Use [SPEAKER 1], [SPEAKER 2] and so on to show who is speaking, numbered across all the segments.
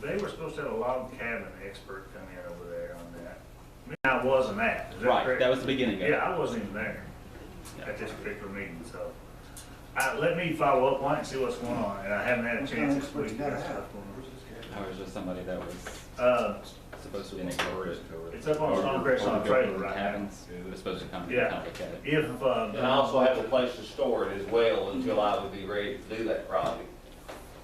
[SPEAKER 1] They were supposed to have a log cabin expert come in over there on that. I wasn't at, is that
[SPEAKER 2] Right,
[SPEAKER 1] correct?
[SPEAKER 2] that was the beginning of
[SPEAKER 1] Yeah,
[SPEAKER 2] it.
[SPEAKER 1] I wasn't even there at this particular meeting, so. I, let me follow up on it and see what's going on, and I haven't had a chance this week. that's what's going
[SPEAKER 2] Or was just somebody that was
[SPEAKER 1] on. Uh,
[SPEAKER 2] supposed to be in a corporate.
[SPEAKER 1] It's up on Stonecrest on a trailer right now.
[SPEAKER 2] Cabins, who was supposed to come and
[SPEAKER 1] Yeah.
[SPEAKER 2] help look at it.
[SPEAKER 1] if,
[SPEAKER 3] And
[SPEAKER 1] uh,
[SPEAKER 3] also have a place to store it as well until I would be ready to do that project.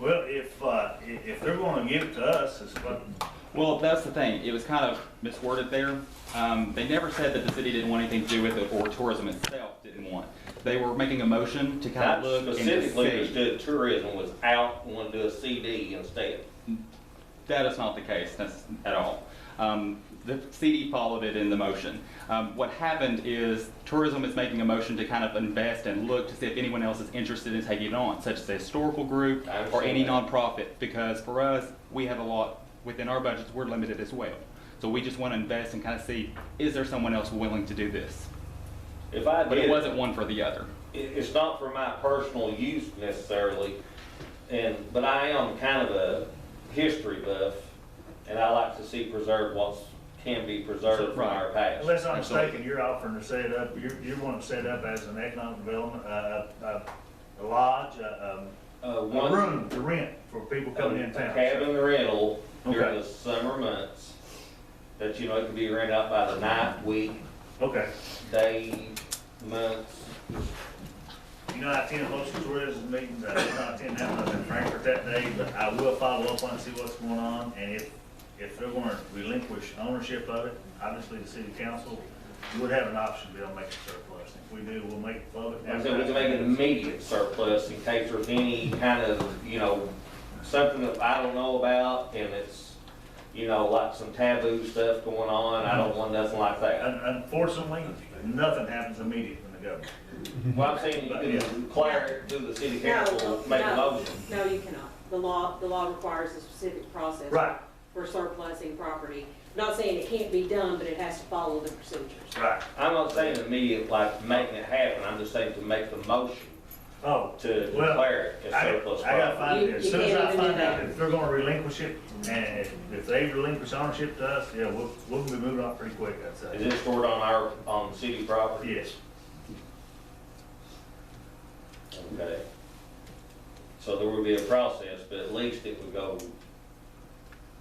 [SPEAKER 1] well, if, uh, i- if they're gonna give it to us, it's what,
[SPEAKER 2] Well, that's the thing, it was kind of misworded there. Um, they never said that the city didn't want anything to do with it, or tourism itself didn't want. They were making a motion to kind
[SPEAKER 3] That
[SPEAKER 2] of look and just
[SPEAKER 3] specifically was
[SPEAKER 2] see.
[SPEAKER 3] doing tourism was out, wanted to do a CD instead.
[SPEAKER 2] That is not the case, that's, at all. Um, the city followed it in the motion. Um, what happened is tourism is making a motion to kind of invest and look to see if anyone else is interested in taking it on, such as the historical group
[SPEAKER 3] I
[SPEAKER 2] or any
[SPEAKER 3] understand
[SPEAKER 2] nonprofit, because for us, we have a lot, within our budgets, we're limited as well. So we just want to invest and kind of see, is there someone else willing to do this?
[SPEAKER 3] If I
[SPEAKER 2] But
[SPEAKER 3] did
[SPEAKER 2] it
[SPEAKER 3] it,
[SPEAKER 2] wasn't one for the other.
[SPEAKER 3] it- it's not for my personal use necessarily, and, but I am kind of a history buff, and I like to see preserved what's, can be preserved from our past.
[SPEAKER 1] unless I'm
[SPEAKER 2] Absolutely.
[SPEAKER 1] mistaken, you're offering to set up, you, you want to set up as an economic development, uh, uh, a lodge, uh,
[SPEAKER 3] Uh,
[SPEAKER 1] um,
[SPEAKER 3] one-
[SPEAKER 1] a room to rent for people coming in
[SPEAKER 3] A
[SPEAKER 1] town.
[SPEAKER 3] cabin rental during
[SPEAKER 1] Okay.
[SPEAKER 3] the summer months, that, you know, it can be rented out by the night, week,
[SPEAKER 1] Okay,
[SPEAKER 3] day, months.
[SPEAKER 1] you know, I attend most tourism meetings, I did not attend that one in Frankfurt that day, but I will follow up on and see what's going on, and if, if they're gonna relinquish ownership of it, obviously the city council would have an option to be able to make it surplus, if we do, we'll make it public.
[SPEAKER 3] Like I said, we can make an immediate surplus in case there's any kind of, you know, something that I don't know about and it's, you know, like some taboo stuff going on, I don't want nothing like that.
[SPEAKER 1] Un- Unfortunately, nothing happens immediately in the government.
[SPEAKER 3] Well, I'm saying you can declare it to the city
[SPEAKER 4] No,
[SPEAKER 3] council, make a
[SPEAKER 4] no,
[SPEAKER 3] motion.
[SPEAKER 4] No, you cannot. The law, the law requires a specific process.
[SPEAKER 1] Right.
[SPEAKER 4] For surplusing property. Not saying it can't be done, but it has to follow the procedures.
[SPEAKER 1] Right.
[SPEAKER 3] I'm not saying immediate, like making it happen, I'm just saying to make the motion
[SPEAKER 1] Oh,
[SPEAKER 3] to
[SPEAKER 1] Well,
[SPEAKER 3] declare it as
[SPEAKER 1] I,
[SPEAKER 3] surplus
[SPEAKER 1] I gotta
[SPEAKER 3] property.
[SPEAKER 1] find it, as soon as I
[SPEAKER 4] You- you can't even
[SPEAKER 1] find
[SPEAKER 4] do
[SPEAKER 1] out
[SPEAKER 4] that.
[SPEAKER 1] if they're gonna relinquish it, and if- if they relinquish ownership to us, yeah, we'll, we'll be moving on pretty quick, I'd
[SPEAKER 3] Is
[SPEAKER 1] say.
[SPEAKER 3] it stored on our, on city property?
[SPEAKER 1] Yes,
[SPEAKER 3] Okay. So there would be a process, but at least it would go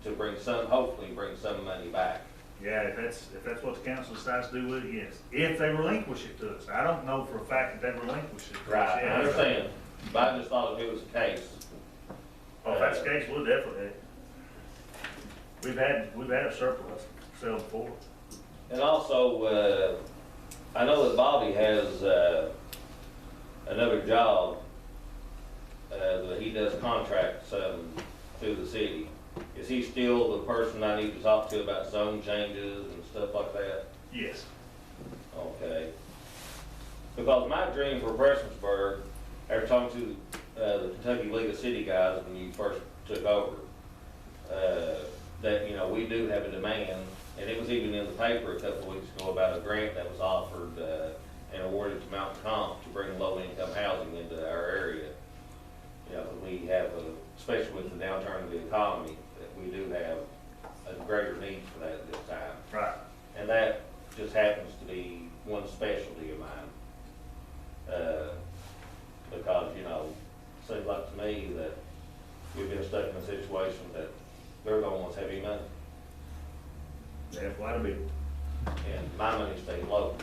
[SPEAKER 3] to bring some, hopefully bring some money back.
[SPEAKER 1] yeah, if that's, if that's what the council decides to do with it, yes, if they relinquish it to us, I don't know for a fact that they relinquish it. to us.
[SPEAKER 3] I
[SPEAKER 1] Yeah.
[SPEAKER 3] understand, but I just thought if it was the case,
[SPEAKER 1] Well, Oh, If that's the case, we'll definitely, we've had, we've had a surplus sale before.
[SPEAKER 3] And also, uh, I know that Bobby has, uh, another job, uh, that he does contracts, um, through the city. Is he still the person I need to talk to about zone changes and stuff like that?
[SPEAKER 1] Yes,
[SPEAKER 3] Okay. Because my dream for Prestonsburg, after talking to, uh, the Kentucky League of City guys when you first took over, uh, that, you know, we do have a demand, and it was even in the paper a couple weeks ago about a grant that was offered, uh, and awarded to Mount Comp to bring low-income housing into our area. You know, we have, a- especially with the downturn of the economy, that we do have a greater need for that at this time.
[SPEAKER 1] right.
[SPEAKER 3] And that just happens to be one specialty of mine. Uh, Because, you know, seems like to me that we've been stuck in a situation that they're gonna want to have any money,
[SPEAKER 1] They have quite a bit.
[SPEAKER 3] and my money stays low.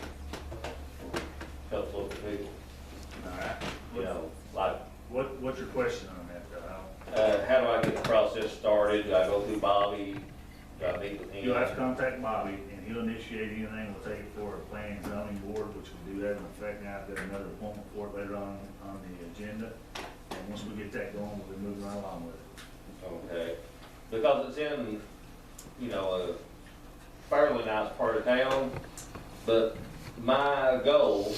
[SPEAKER 3] Helps local people,
[SPEAKER 1] All right.
[SPEAKER 3] you know, like,
[SPEAKER 1] What, what's your question on that, though? I don't-
[SPEAKER 3] uh, how do I get the process started? Do I go through Bobby? Do I meet with him?
[SPEAKER 1] You'll have to contact Bobby, and he'll initiate anything, we'll take it for a planning and zoning board, which will do that in effect now, I've got another appointment for it later on, on the agenda. And once we get that going, we'll be moving right along with it.
[SPEAKER 3] Okay, because it's in, you know, a fairly nice part of town, but my goal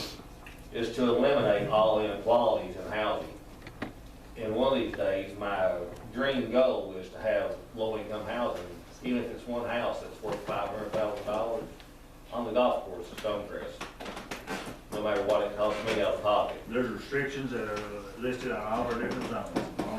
[SPEAKER 3] is to eliminate all inequalities in housing. And one of these days, my dream goal is to have low-income housing, even if it's one house that's worth five hundred thousand dollars on the golf course at Stonecrest. No matter what it costs me out of pocket.
[SPEAKER 1] There's restrictions that are listed on all our different zones.